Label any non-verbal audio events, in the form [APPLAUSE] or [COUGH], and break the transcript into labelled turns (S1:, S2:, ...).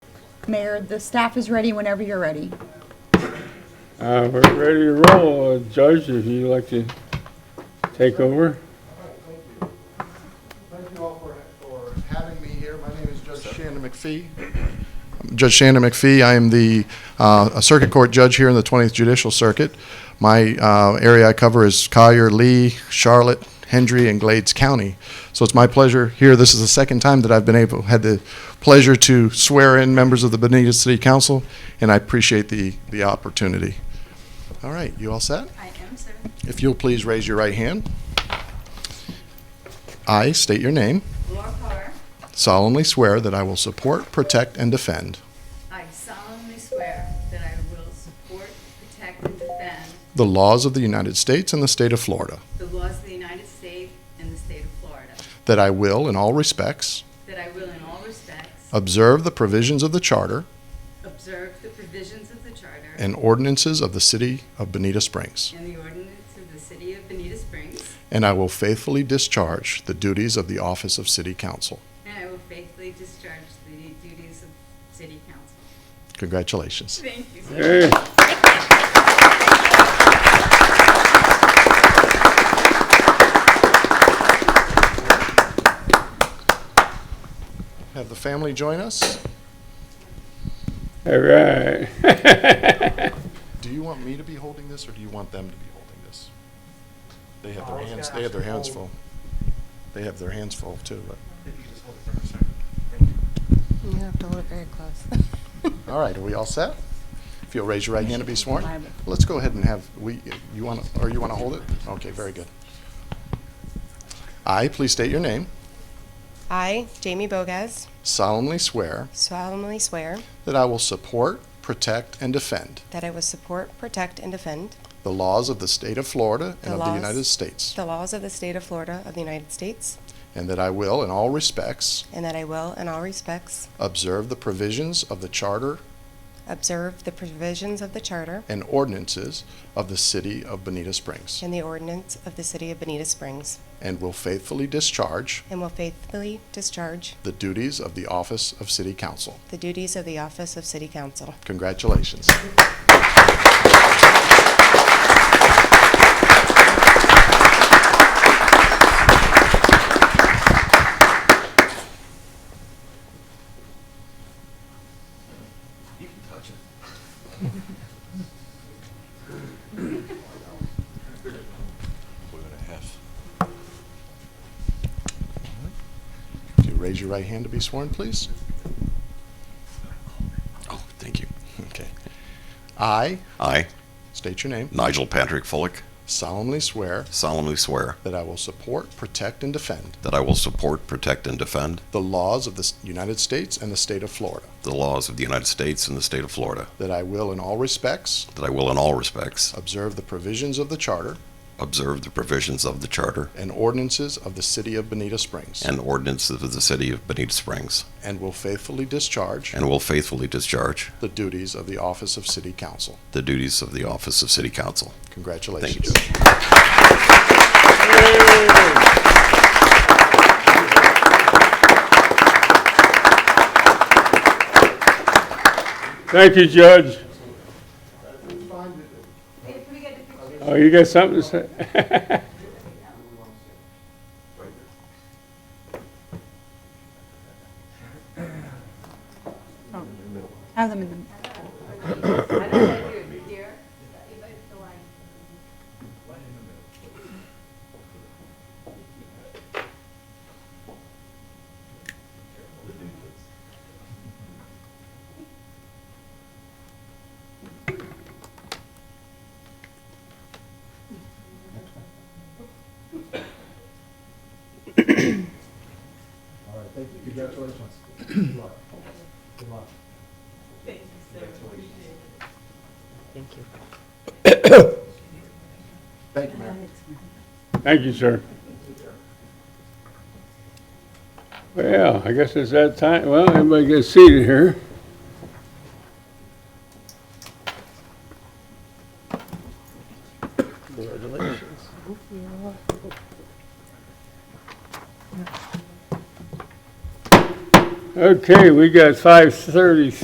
S1: Mayor. The staff is ready whenever you're ready.
S2: Uh, we're ready to roll. Uh, Judge, if you'd like to take over.
S3: Thank you all for, for having me here. My name is Judge Shannon McPhee. I'm Judge Shannon McPhee. I am the uh, a Circuit Court Judge here in the 20th Judicial Circuit. My uh, area I cover is Collier, Lee, Charlotte, Hendry, and Glades County. So it's my pleasure here. This is the second time that I've been able, had the pleasure to swear in members of the Benita City Council, and I appreciate the, the opportunity. All right, you all set?
S4: I am, sir.
S3: If you'll please raise your right hand. I state your name.
S4: Laura Carr,
S3: solemnly swear that I will support, protect, and defend
S4: I solemnly swear that I will support, protect, and defend
S3: the laws of the United States and the state of Florida,
S4: the laws of the United States and the state of Florida,
S3: that I will, in all respects,
S4: that I will in all respects
S3: observe the provisions of the charter
S4: observe the provisions of the charter
S3: and ordinances of the city of Bonita Springs,
S4: and the ordinance of the city of Benita Springs,
S3: and I will faithfully discharge the duties of the office of city council.
S4: and I will faithfully discharge the duties of city council.
S3: Congratulations.
S4: Thank you, sir.
S2: Hey.
S3: Have the family join us.
S2: All right. [LAUGHS]
S3: Do you want me to be holding this, or do you want them to be holding this? They have their hands, they have their hands full. They have their hands full, too, but.
S5: You have to hold it very close.
S3: All right, are we all set? If you'll raise your right hand to be sworn.
S1: Bible.
S3: Let's go ahead and have, we, you want, to or you want to hold it? Okay, very good. I, please state your name,
S5: I, Jamie Bogas,
S3: solemnly swear
S5: solemnly swear
S3: that I will support, protect, and defend
S5: that I will support, protect, and defend
S3: the laws of the state of Florida and
S5: The
S3: of the
S5: laws.
S3: United States,
S5: the laws of the state of Florida of the United States,
S3: and that I will, in all respects,
S5: and that I will, in all respects,
S3: observe the provisions of the charter
S5: observe the provisions of the charter
S3: and ordinances of the city of Bonita Springs,
S5: and the ordinance of the city of Benita Springs,
S3: and will faithfully discharge
S5: and will faithfully discharge
S3: the duties of the office of city council.
S5: the duties of the office of city council.
S3: Congratulations. If you Raise your right hand to be sworn, please.
S6: Oh, thank you.
S3: Okay. I,
S6: I,
S3: state your name,
S6: Nigel Patrick Fullick,
S3: solemnly swear
S6: solemnly swear
S3: that I will support, protect, and defend
S6: that I will support, protect, and defend
S3: the laws of the S- United States and the state of Florida,
S6: the laws of the United States and the state of Florida,
S3: that I will, in all respects,
S6: that I will in all respects
S3: observe the provisions of the charter
S6: observe the provisions of the charter
S3: and ordinances of the city of Bonita Springs,
S6: and ordinances of the city of Benita Springs,
S3: and will faithfully discharge
S6: and will faithfully discharge
S3: the duties of the office of city council.
S6: the duties of the office of city council. Thank
S3: Congratulations.
S6: you.
S2: Thank you, Judge.
S4: Can we get a picture?
S2: Oh, you got something to say? [LAUGHS]
S1: Have them in the-
S4: I don't know if I do it here, if I feel like.
S2: Thank you, sir. Well, I guess it's that time. Well, everybody gets seated here. Okay, we got five thirty